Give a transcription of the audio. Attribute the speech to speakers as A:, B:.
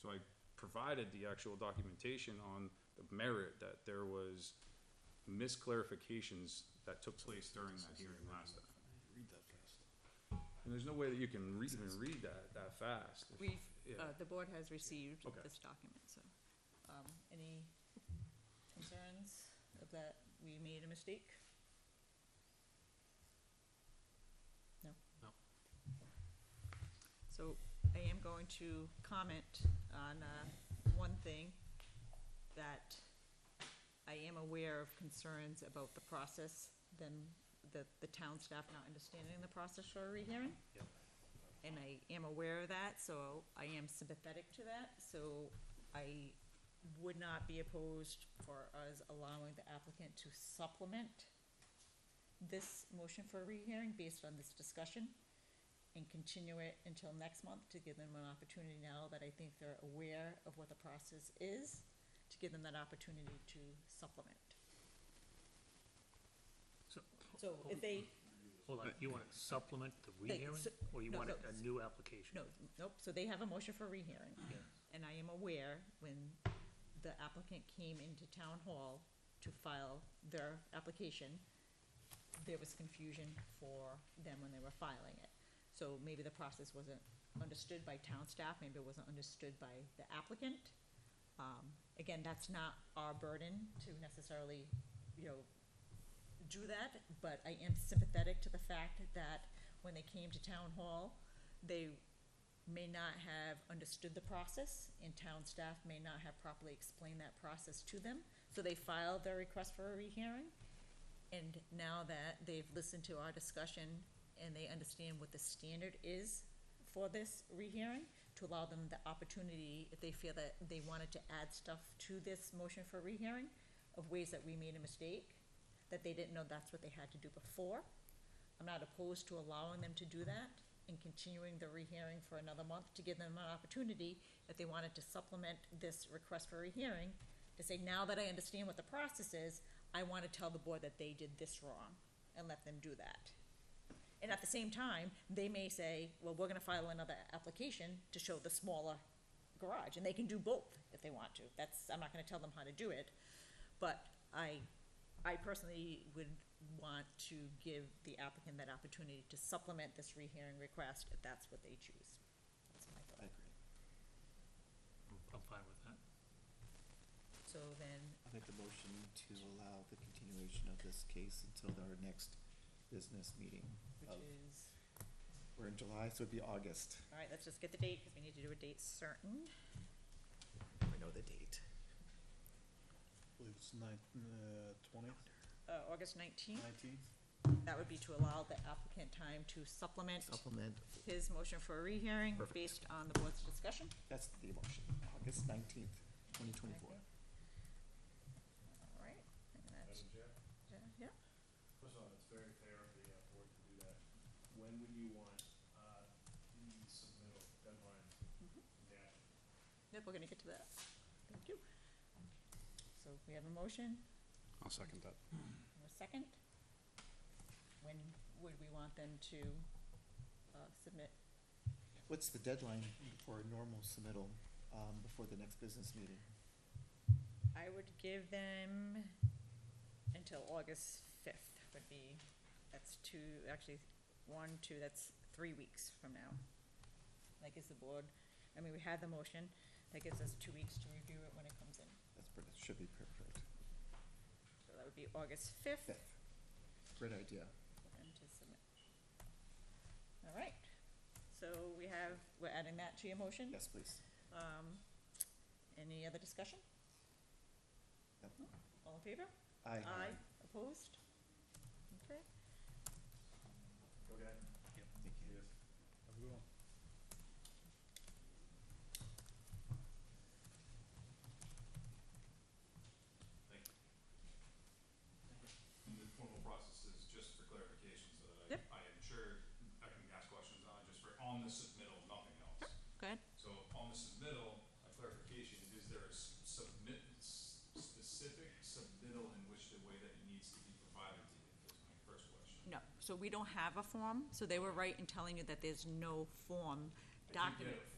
A: So I provided the actual documentation on the merit that there was misclarifications that took place during that hearing last time.
B: Read that fast.
A: And there's no way that you can re- even read that, that fast.
C: We've,
A: Yeah.
C: uh, the board has received
A: Okay.
C: this document, so, um, any concerns of that we made a mistake? No?
B: No.
C: So I am going to comment on, uh, one thing that I am aware of concerns about the process, then the, the town staff not understanding the process for a rehearing and I am aware of that, so I am sympathetic to that, so I would not be opposed for us allowing the applicant to supplement this motion for a rehearing based on this discussion and continue it until next month to give them an opportunity now that I think they're aware of what the process is, to give them that opportunity to supplement.
D: So,
C: So if they,
D: hold on, you want to supplement the rehearing,
C: so-
D: or you
C: no,
D: want
C: no,
D: a
C: s-
D: new application?
C: no, nope, so they have a motion for a rehearing.
D: Yeah.
C: and I am aware when the applicant came into town hall to file their application, there was confusion for them when they were filing it. So maybe the process wasn't understood by town staff, maybe it wasn't understood by the applicant. Um, again, that's not our burden to necessarily, you know, do that, but I am sympathetic to the fact that when they came to town hall, they may not have understood the process, and town staff may not have properly explained that process to them. So they filed their request for a rehearing, and now that they've listened to our discussion and they understand what the standard is for this rehearing, to allow them the opportunity, if they feel that they wanted to add stuff to this motion for rehearing, of ways that we made a mistake, that they didn't know that's what they had to do before. I'm not opposed to allowing them to do that and continuing the rehearing for another month to give them an opportunity, if they wanted to supplement this request for rehearing, to say, now that I understand what the process is, I want to tell the board that they did this wrong, and let them do that. And at the same time, they may say, well, we're gonna file another application to show the smaller garage, and they can do both if they want to. That's, I'm not gonna tell them how to do it, but I, I personally would want to give the applicant that opportunity to supplement this rehearing request if that's what they choose. That's my thought.
D: I'm- I'm fine with that.
C: So then,
E: I'll make a motion to allow the continuation of this case until our next business meeting.
C: which
E: of-
C: is,
E: We're in July, so it'd be August.
C: all right, let's just get the date, because we need to do a date certain.
E: I know the date.
B: I believe it's nine, uh, twentieth,
C: Uh, August nineteenth,
B: nineteenth.
C: that would be to allow the applicant time to supplement
E: Supplement,
C: his motion for a rehearing
E: Perfect.
C: based on the board's discussion.
E: that's the motion, August nineteenth, twenty twenty-four.
C: All right, and that's, yeah,
F: First of all, it's very fair of the uh, board to do that. When would you want uh, the submittal deadline?
C: Mhm.
F: Yeah.
C: yep, we're gonna get to that. Thank you. So we have a motion,
B: I'll second that.
C: and a second. When would we want them to, uh, submit?
E: What's the deadline for a normal submittal, um, before the next business meeting?
C: I would give them until August fifth would be, that's two, actually, one, two, that's three weeks from now. Like is the board, I mean, we had the motion, that gives us two weeks to review it when it comes in.
E: That's, per- that should be perfect.
C: So that would be August fifth
E: Fifth. Great idea.
C: for them to submit. All right, so we have, we're adding that to your motion?
E: Yes, please.
C: Um, any other discussion?
E: Yep.
C: No? All in favor?
E: Aye.
C: Opposed? Okay.
F: Okay.
E: Thank you.
F: Yes.
B: Have a good one.
A: And the formal process is just for clarification, so that
C: Yep.
A: I, I am sure I can ask questions on, just for on the submittal, nothing else.
C: Go ahead.
A: So on the submittal, a clarification, is there a s- submit, s- specific submittal in which the way that it needs to be provided to you, is my first question.
C: No, so we don't have a form, so they were right in telling you that there's no form
A: I do get
C: document.
A: a